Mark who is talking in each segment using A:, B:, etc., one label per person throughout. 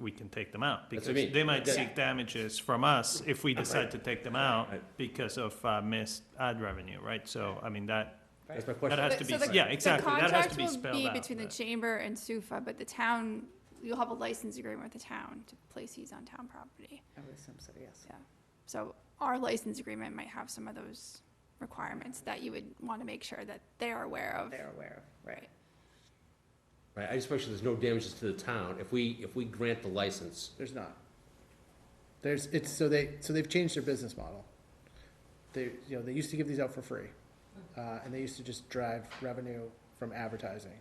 A: we can take them out.
B: That's
A: Because
B: what I mean.
A: they might
B: Yeah.
A: seek damages from us if we decide to take them out
B: Right.
A: because of uh, missed ad revenue, right? So, I mean, that,
B: That's my
A: that
B: question.
A: has
C: But-
A: to
C: so
A: be,
C: the-
A: yeah, exactly, that has to be
C: The contract
A: spelled
C: will be
A: out.
C: between the
A: but-
C: chamber and SUFA, but the town, you'll have a license agreement with the town to place these on town property.
D: I would assume so, yes.
C: So our license agreement might have some of those requirements that you would want to make sure that they are aware of.
D: They're aware of, right.
B: Right, I just make sure there's no damages to the town if we, if we grant the license.
E: There's not. There's, it's, so they, so they've changed their business model. They, you know, they used to give these out for free, uh, and they used to just drive revenue from advertising.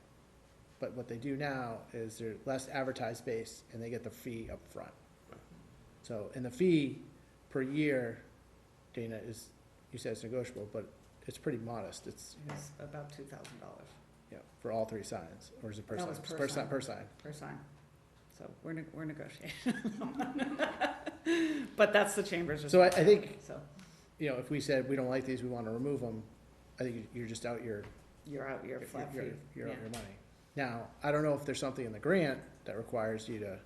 E: But what they do now is they're less advertised base and they get the fee up front. So, and the fee per year, Dana, is, you said it's negotiable, but it's pretty modest, it's,
D: It's about two thousand dollars
E: you know, for all three signs, or is it per
D: No,
E: sign?
D: it's per
E: Per sign,
D: sign.
E: per sign.
D: per sign. So we're, neg- we're negotiating. But that's the chamber's
E: So I, I think
D: responsibility, so
E: you know, if we said we don't like these, we want to remove them, I think you're just out your,
D: you're out, you're
E: your-
D: flat
E: your,
D: fee.
E: your,
D: yeah.
E: your money. Now, I don't know if there's something in the grant that requires you to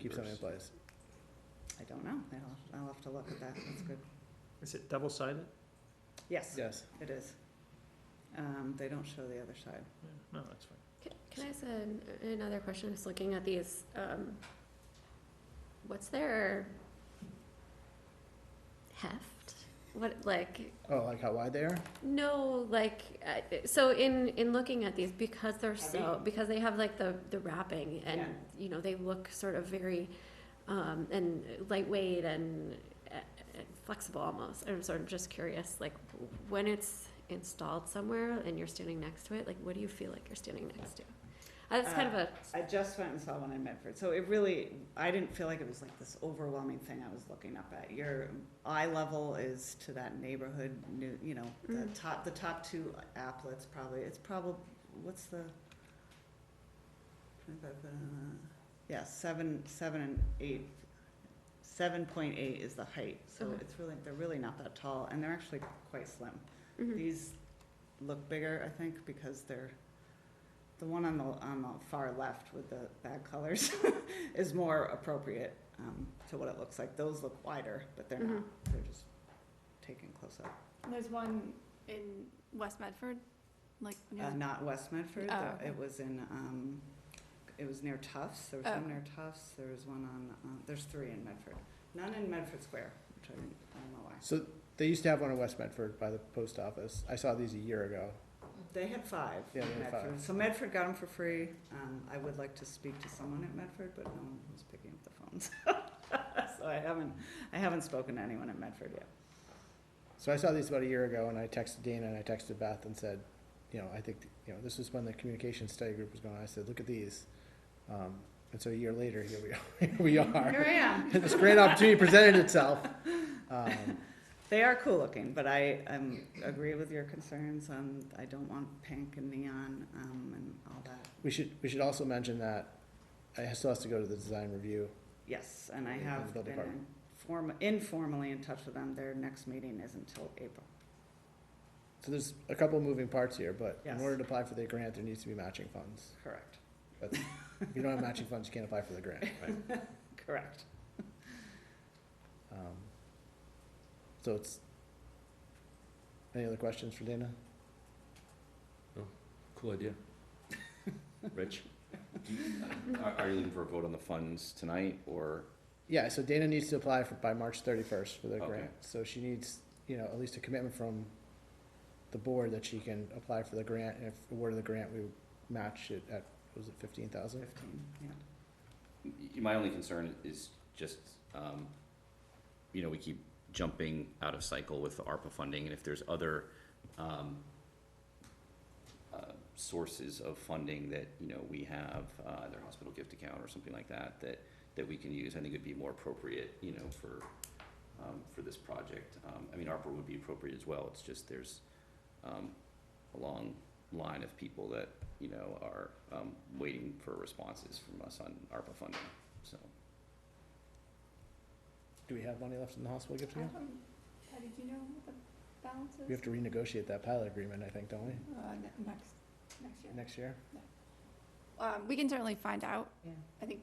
E: keep something in place.
D: I don't know. I'll, I'll have to look at that. That's good.
A: Is it double-sided?
D: Yes,
E: Yes,
D: it is. Um, they don't show the other side.
A: Yeah, No, that's fine.
F: Can can I ask an- another question? Just looking at these, um, what's their heft? What, like,
E: oh, like how wide they are?
F: no, like, uh, so in, in looking at these, because they're so,
D: Heavy.
F: because they have like the, the wrapping and,
D: Yeah.
F: you know, they look sort of very, um, and lightweight and uh, uh, flexible almost. I'm sort of just curious, like, when it's installed somewhere and you're standing next to it, like, what do you feel like you're standing next to? Uh, That's kind of a
D: I just went and saw one in Medford, so it really, I didn't feel like it was like this overwhelming thing I was looking up at. Your eye level is to that neighborhood, new, you know, the
F: Mm.
D: top, the top two applets probably, it's probably, what's the? Yeah, seven, seven and eight, seven point eight is the height, so
F: Okay.
D: it's really, they're really not that tall, and they're actually quite slim.
F: mhm.
D: These look bigger, I think, because they're, the one on the, on the far left with the bad colors is more appropriate, um, to what it looks like. Those look wider, but they're not,
C: Mm-hmm.
D: they're just taken close up. Uh,
C: There's one in West Medford, like near
D: Uh,
C: the
D: not West Medford,
C: Oh,
D: though.
C: okay.
D: it was in, um, it was near Tufts, there was
C: Oh.
D: one near Tufts, there was one on, uh, there's three in Medford. None in Medford Square, which I didn't, I don't know why.
E: So they used to have one in West Medford by the post office. I saw these a year ago.
D: They had five.
E: Yeah, they
D: in
E: had
D: Medford.
E: five.
D: So Medford got them for free. Um, I would like to speak to someone at Medford, but no one was picking up the phones. So I haven't, I haven't spoken to anyone at Medford yet.
E: So I saw these about a year ago and I texted Dana and I texted Beth and said, you know, I think, you know, this was when the communication study group was going on. I said, look at these. Um, and so a year later, here we are, here we are.
D: Here I am.
E: this great opportunity presented itself. Um,
D: They are cool looking, but I, um, agree with your concerns on, I don't want pink and neon, um, and all that.
E: we should, we should also mention that it still has to go to the design review.
D: Yes, and I
E: And
D: have
E: the
D: been
E: department.
D: inform, informally in touch with them. Their next meeting is until April.
E: So there's a couple of moving parts here, but in
D: Yes.
E: order to apply for the grant, there needs to be matching funds.
D: Correct,
E: If you don't have matching funds, you can't apply for the grant.
D: correct.
E: Um, So it's, any other questions for Dana?
B: Cool idea. Rich?
G: Are, are you looking for a vote on the funds tonight, or?
E: Yeah, so Dana needs to apply for, by March thirty-first for the
G: Okay.
E: grant. So she needs, you know, at least a commitment from the board that she can apply for the grant. And if awarded the grant, we would match it at, was it fifteen thousand?
D: Fifteen, yeah.
G: y- My only concern is just, um, you know, we keep jumping out of cycle with the ARPA funding, and if there's other, um, uh, sources of funding that, you know, we have, uh, their hospital gift account or something like that, that, that we can use, I think it'd be more appropriate, you know, for, um, for this project. Um, I mean, ARPA would be appropriate as well, it's just there's, um, a long line of people that, you know, are, um, waiting for responses from us on ARPA funding, so.
E: Do we have money left in the hospital gift
C: I
E: account?
C: don't- Patty, do you know what the balance is?
E: We have to renegotiate that pilot agreement, I think, don't we,
C: Uh, ne- next, next year.
E: next year?
C: Um, we can certainly find out.
D: Yeah.
C: I think